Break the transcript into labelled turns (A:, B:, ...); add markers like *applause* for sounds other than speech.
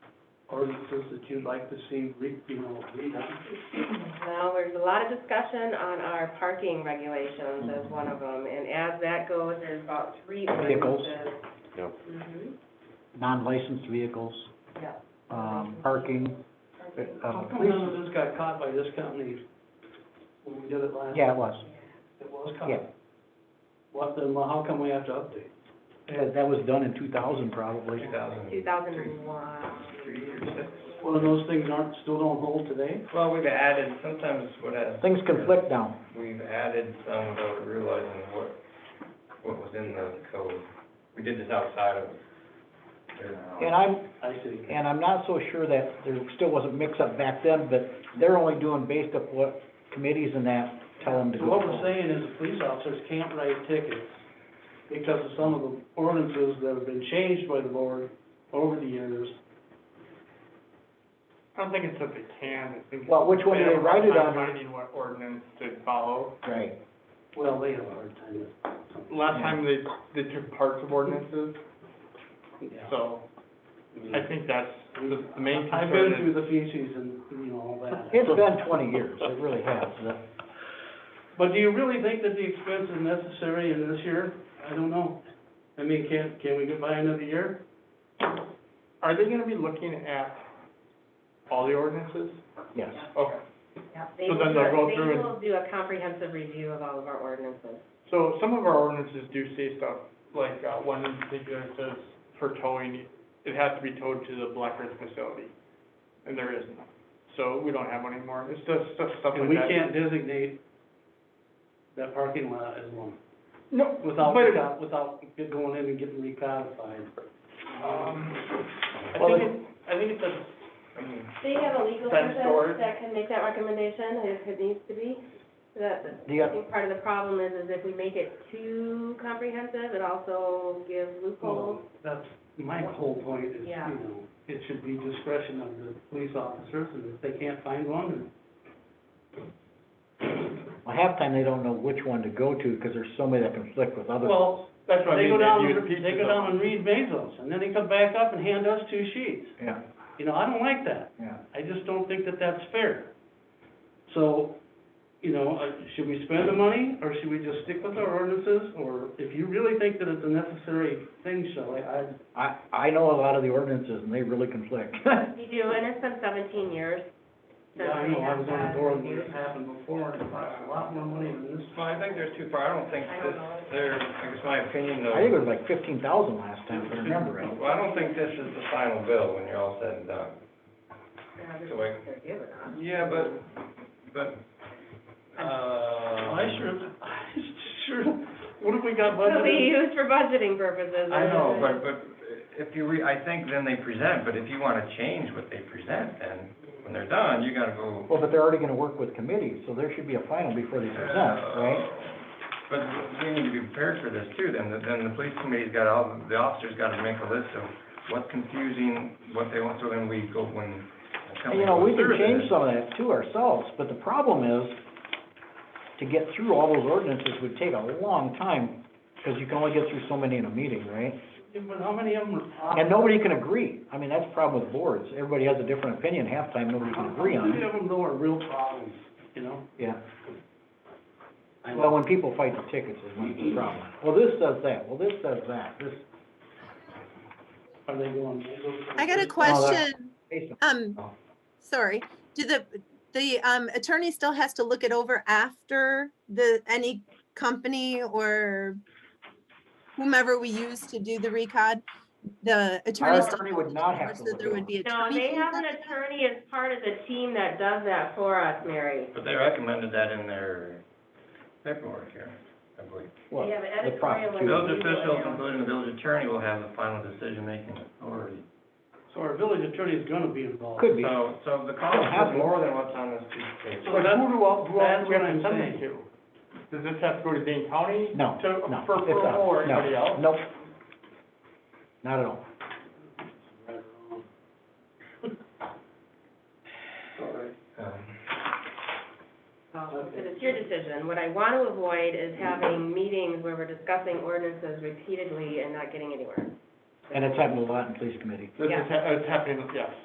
A: ordinances that you'd like to see re, you know, redone?
B: Well, there's a lot of discussion on our parking regulations as one of them, and as that goes, there's about three
C: Vehicles.
B: ordinances.
D: Yep.
B: Mhm.
C: non-licensed vehicles,
B: Yeah.
C: um, parking,
A: How
C: um,
A: come none of this got caught by this company when we did it last?
C: yeah, it was.
A: It was caught?
C: Yeah.
A: What, then how come we have to update?
C: That, that was done in two thousand probably.
B: Two thousand and one.
A: Well, and those things aren't, still don't hold today?
E: Well, we've added, sometimes what has.
C: Things conflict now.
E: We've added some without realizing what, what was in the code. We did this outside of.
C: And I'm,
A: I see.
C: and I'm not so sure that there still wasn't mix-up back then, but they're only doing based up what committees and that tell them to
A: So
C: go.
A: what we're saying is the police officers can't write tickets because of some of the ordinances that have been changed by the board over the years.
F: I don't think it's that they can, I think.
C: Well, which one do they write it on?
F: They're finding what ordinance to follow.
C: Right.
A: Well, they have a hard time with
F: Last time they, they took parts of ordinances, so I think that's the the main
A: I've been
F: concern
A: through
F: is.
A: the feces and, you know, all that.
C: It's been twenty years, it really has.
A: But do you really think that the expense is necessary in this year? I don't know. I mean, can, can we get by another year?
F: Are they gonna be looking at all the ordinances?
C: Yes.
F: Okay,
B: Yeah, They
F: So
B: will,
F: then they'll go
B: do-
F: through
B: they
F: and-
B: will do a comprehensive review of all of our ordinances.
F: so some of our ordinances do say stuff, like, uh, one in particular says for towing, it has to be towed to the Black Earth facility, and there isn't. So we don't have one anymore, it's just stuff, stuff like that.
A: And we can't designate that parking lot as one,
F: No,
A: without,
F: but it-
A: without- without it going in and getting recodified.
F: Um, I
C: Well,
F: think it, I think it's a, I mean,
B: Do you have a legal
F: Fence person door.
B: that can make that recommendation if it needs to be? That,
C: The, uh,
B: I
C: oth-
B: think part of the problem is, is if we make it too comprehensive, it also gives loopholes.
A: Well, That's my whole point is, you
B: Yeah.
A: know, it should be discretion of the police officers and if they can't find one, then
C: well, half time they don't know which one to go to because there's so many that conflict with other.
A: Well,
F: that's what I
A: they
F: mean,
A: go down,
F: they
A: and
F: use
A: re-
F: pieces
A: they go down
F: of,
A: and read Bezos and then they come back up and hand us two sheets.
C: Yeah,
A: You know, I don't like that.
C: yeah.
A: I just don't think that that's fair. So, you know, uh, should we spend the money, or should we just stick with our ordinances? Or if you really think that it's a necessary thing, Shelley, I,
C: I, I know a lot of the ordinances and they really conflict. *laughs*
B: You do, and it's been seventeen years since
A: yeah, I
B: we
A: know, I
B: have
A: was on
B: that
A: the board when
B: review.
A: this happened before, and it cost a lot more money than this.
E: Well, I think there's too far, I don't think
B: I don't
E: this,
B: know.
E: there, I guess my opinion though.
C: I think it was like fifteen thousand last time, if I remember right.
E: Well, I don't think this is the final bill when you're all said and done.
B: Yeah, this is
E: So
B: what
E: I-
B: they're giving us.
E: Yeah, but, but, uh.
A: I sure, *laughs* I sure, what have we got
B: It'll be
A: budgeted?
B: used for budgeting purposes.
E: I know,
B: and-
E: but, but if you re, I think then they present, but if you wanna change what they present, then when they're done, you gotta go.
C: Well, but they're already gonna work with committees, so there should be a final before they present, right?
E: Uh, But we need to be prepared for this too, then, then the police committee's got all, the officers gotta make a list of what's confusing, what they want, so then we go when. the
C: And,
E: company
C: you know, we
E: goes
C: can
E: through
C: change
E: this.
C: some of that too ourselves, but the problem is, to get through all those ordinances would take a long time, because you can only get through so many in a meeting, right?
A: But how many of them are?
C: And nobody can agree. I mean, that's the problem with boards. Everybody has a different opinion. Half time, nobody can agree
A: How
C: on
A: many
C: it.
A: of them though are real problems, you know?
C: Yeah.
A: I
C: Well,
A: know,
C: when people fight the tickets is when it's a problem. Well, this does that. Well, this does that. This,
A: are they going?
G: I
C: Oh,
G: got a question. Um, sorry, do the, the um, attorney still has to look it over after the, any company or whomever we use to do the recod? The
C: our
G: attorney still,
C: attorney would not have to
G: so
C: look
G: there
C: it
G: would
C: over.
G: be
B: No,
G: attorney.
B: they
G: fees
B: have an
G: on that?
B: attorney as part of the team that does that for us, Mary.
E: But they recommended that in their paperwork here, I believe.
C: Well,
B: They have an
C: the
B: editorial
C: prosecutor.
E: Village
B: Legal
E: officials,
B: analysis.
E: including the village attorney, will have the final decision-making authority.
A: So our village attorney is gonna be involved.
C: Could be.
E: So, so the cost is more than what's on this piece of paper.
A: So
F: but
A: that's-
F: who do all, who all
A: that's
F: do we have
A: what
F: to
A: I'm
F: send it
A: saying.
F: to? Does this have to go to Dane County?
C: No,
F: To,
C: no,
F: for
C: it's not.
A: uh,
F: approval or
C: No,
F: anybody else?
C: Nope. Not at all.
A: Right or wrong. *laughs*
E: Um,
B: Um, But it's your decision. What I want to avoid is having meetings where we're discussing ordinances repeatedly and not getting anywhere.
C: And it's happened a lot in police committee.
F: This is,
B: Yeah.
F: ha- it's happening, yes.